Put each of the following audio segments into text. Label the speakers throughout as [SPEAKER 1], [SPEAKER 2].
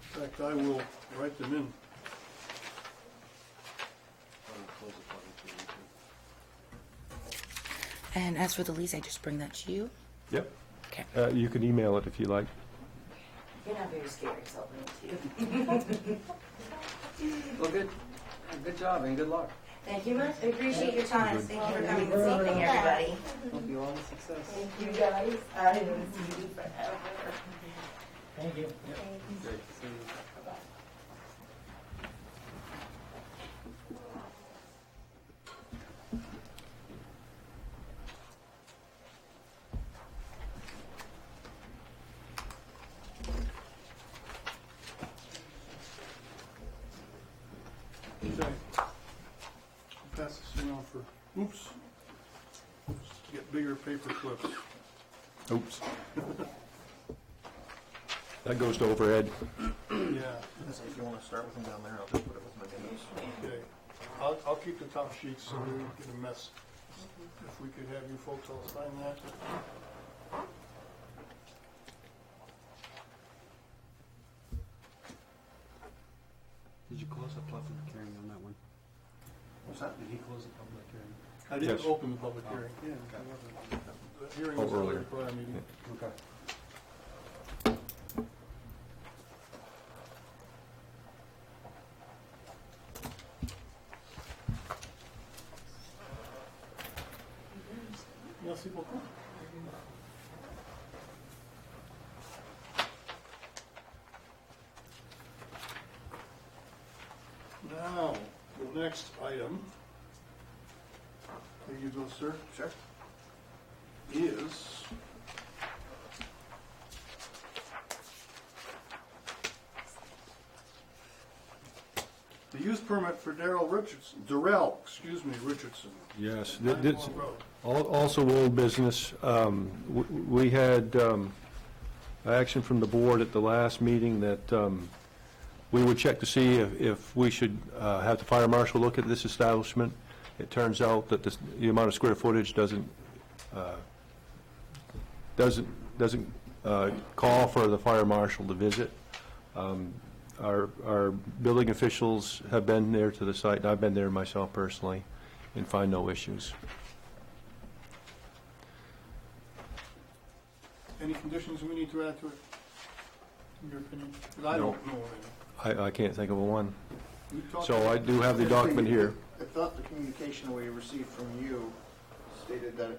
[SPEAKER 1] fact, I will write them in.
[SPEAKER 2] And as for the lease, I just bring that to you.
[SPEAKER 3] Yep.
[SPEAKER 2] Okay.
[SPEAKER 3] Uh, you can email it if you like.
[SPEAKER 4] You're not very scary, so I'll bring it to you.
[SPEAKER 5] Well, good, good job and good luck.
[SPEAKER 4] Thank you much. I appreciate your time. Thank you for coming this evening, everybody.
[SPEAKER 5] Hope you all have success.
[SPEAKER 4] Thank you guys. I haven't seen you forever.
[SPEAKER 5] Great to see you.
[SPEAKER 1] Okay. I'll Pass this around for, oops. Get bigger paper clips.
[SPEAKER 3] Oops. That goes to overhead.
[SPEAKER 1] Yeah,
[SPEAKER 6] If you wanna start with them down there, I'll just put it with my names.
[SPEAKER 1] okay. I'll, I'll keep the top sheets so we don't get a mess. If we could have you folks all sign that.
[SPEAKER 7] Did you close the public hearing on that one?
[SPEAKER 6] What's that?
[SPEAKER 7] Did he close the public hearing?
[SPEAKER 1] I didn't
[SPEAKER 3] Yes. Uh,
[SPEAKER 1] open the public hearing. Yeah. I wasn't. The hearing was
[SPEAKER 3] Oh, earlier.
[SPEAKER 1] earlier, prior meeting.
[SPEAKER 7] Okay.
[SPEAKER 1] Merci beaucoup. Now, the next item, there you go, sir. Sure. Is the use permit for Darrell Richardson, Darrell, excuse me, Richardson.
[SPEAKER 3] Yes.
[SPEAKER 1] Nine Wall Road.
[SPEAKER 3] Al- Also old business, um, w- we had um, action from the board at the last meeting that um, we would check to see if- if we should uh, have the fire marshal look at this establishment. It turns out that this- the amount of square footage doesn't, uh, doesn't, doesn't uh, call for the fire marshal to visit. Um, Our, our building officials have been there to the site, and I've been there myself personally, and find no issues.
[SPEAKER 1] Any conditions we need to add to it, in your opinion? 'Cause I
[SPEAKER 3] No.
[SPEAKER 1] don't know
[SPEAKER 3] I, I can't think of a one.
[SPEAKER 1] any. You talked
[SPEAKER 3] So I
[SPEAKER 1] about-
[SPEAKER 3] do have the document here.
[SPEAKER 6] I thought the communication we received from you stated that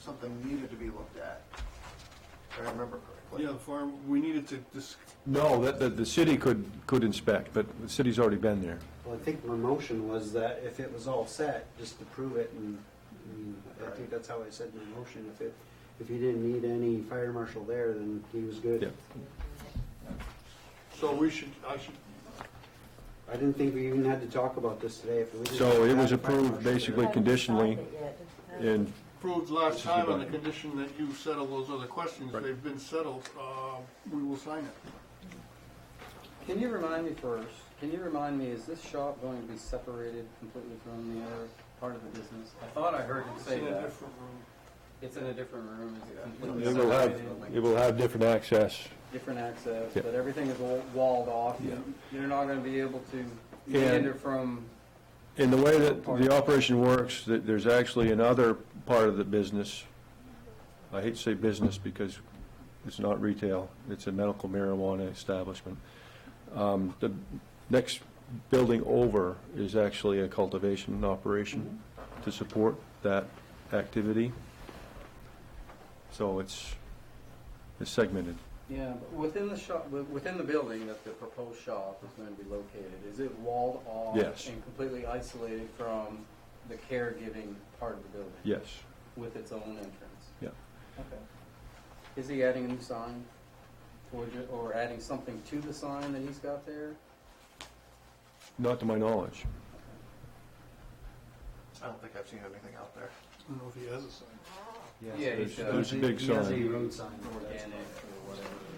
[SPEAKER 6] something needed to be looked at. If I remember correctly.
[SPEAKER 1] Yeah, the farm, we needed to dis,
[SPEAKER 3] No, that, that the city could, could inspect, but the city's already been there.
[SPEAKER 7] Well, I think my motion was that if it was all set, just to prove it, and, and I think that's how I said my motion, if it, if he didn't need any fire marshal there, then he was
[SPEAKER 3] Yeah.
[SPEAKER 7] good.
[SPEAKER 1] so we should, I should,
[SPEAKER 7] I didn't think we even had to talk about this today, if we just.
[SPEAKER 3] So it
[SPEAKER 7] had
[SPEAKER 3] was
[SPEAKER 7] the fire
[SPEAKER 3] approved
[SPEAKER 7] marshal there.
[SPEAKER 3] basically conditionally, and,
[SPEAKER 1] approved last
[SPEAKER 3] This is
[SPEAKER 1] time on the
[SPEAKER 3] about it.
[SPEAKER 1] condition that you settle those other questions.
[SPEAKER 3] Right.
[SPEAKER 1] They've been settled, uh, we will sign it.
[SPEAKER 5] Can you remind me first, can you remind me, is this shop going to be separated completely from the other part of the business? I thought I heard you
[SPEAKER 1] It's
[SPEAKER 5] say
[SPEAKER 1] in a
[SPEAKER 6] uh,
[SPEAKER 5] that.
[SPEAKER 1] different room.
[SPEAKER 5] It's in a different room, is it completely
[SPEAKER 3] it will have,
[SPEAKER 5] separated?
[SPEAKER 3] it will have different access.
[SPEAKER 5] Different access,
[SPEAKER 3] Yeah.
[SPEAKER 5] but everything is wa- walled off.
[SPEAKER 3] Yeah.
[SPEAKER 5] You're not gonna be able to enter from,
[SPEAKER 3] In the way that the operation works, that there's actually another part of the business, I hate to say business because it's not retail, it's a medical marijuana establishment. Um, The next building over is actually a cultivation operation to support that activity. So it's, it's segmented.
[SPEAKER 5] yeah, but within the shop, wi- within the building that the proposed shop is going to be located, is it walled off?
[SPEAKER 3] Yes.
[SPEAKER 5] And completely isolated from the caregiving part of the building?
[SPEAKER 3] Yes,
[SPEAKER 5] With its own entrance?
[SPEAKER 3] yeah.
[SPEAKER 5] Okay. Is he adding a new sign? Or ju, or adding something to the sign that he's got there?
[SPEAKER 3] Not to my knowledge.
[SPEAKER 6] I don't think I've seen anything out there.
[SPEAKER 1] I don't know if he has a sign.
[SPEAKER 5] Yeah,
[SPEAKER 3] There's
[SPEAKER 5] he's got-
[SPEAKER 3] there's a big
[SPEAKER 7] He has a
[SPEAKER 3] sign.
[SPEAKER 7] road sign.
[SPEAKER 5] Organic or whatever.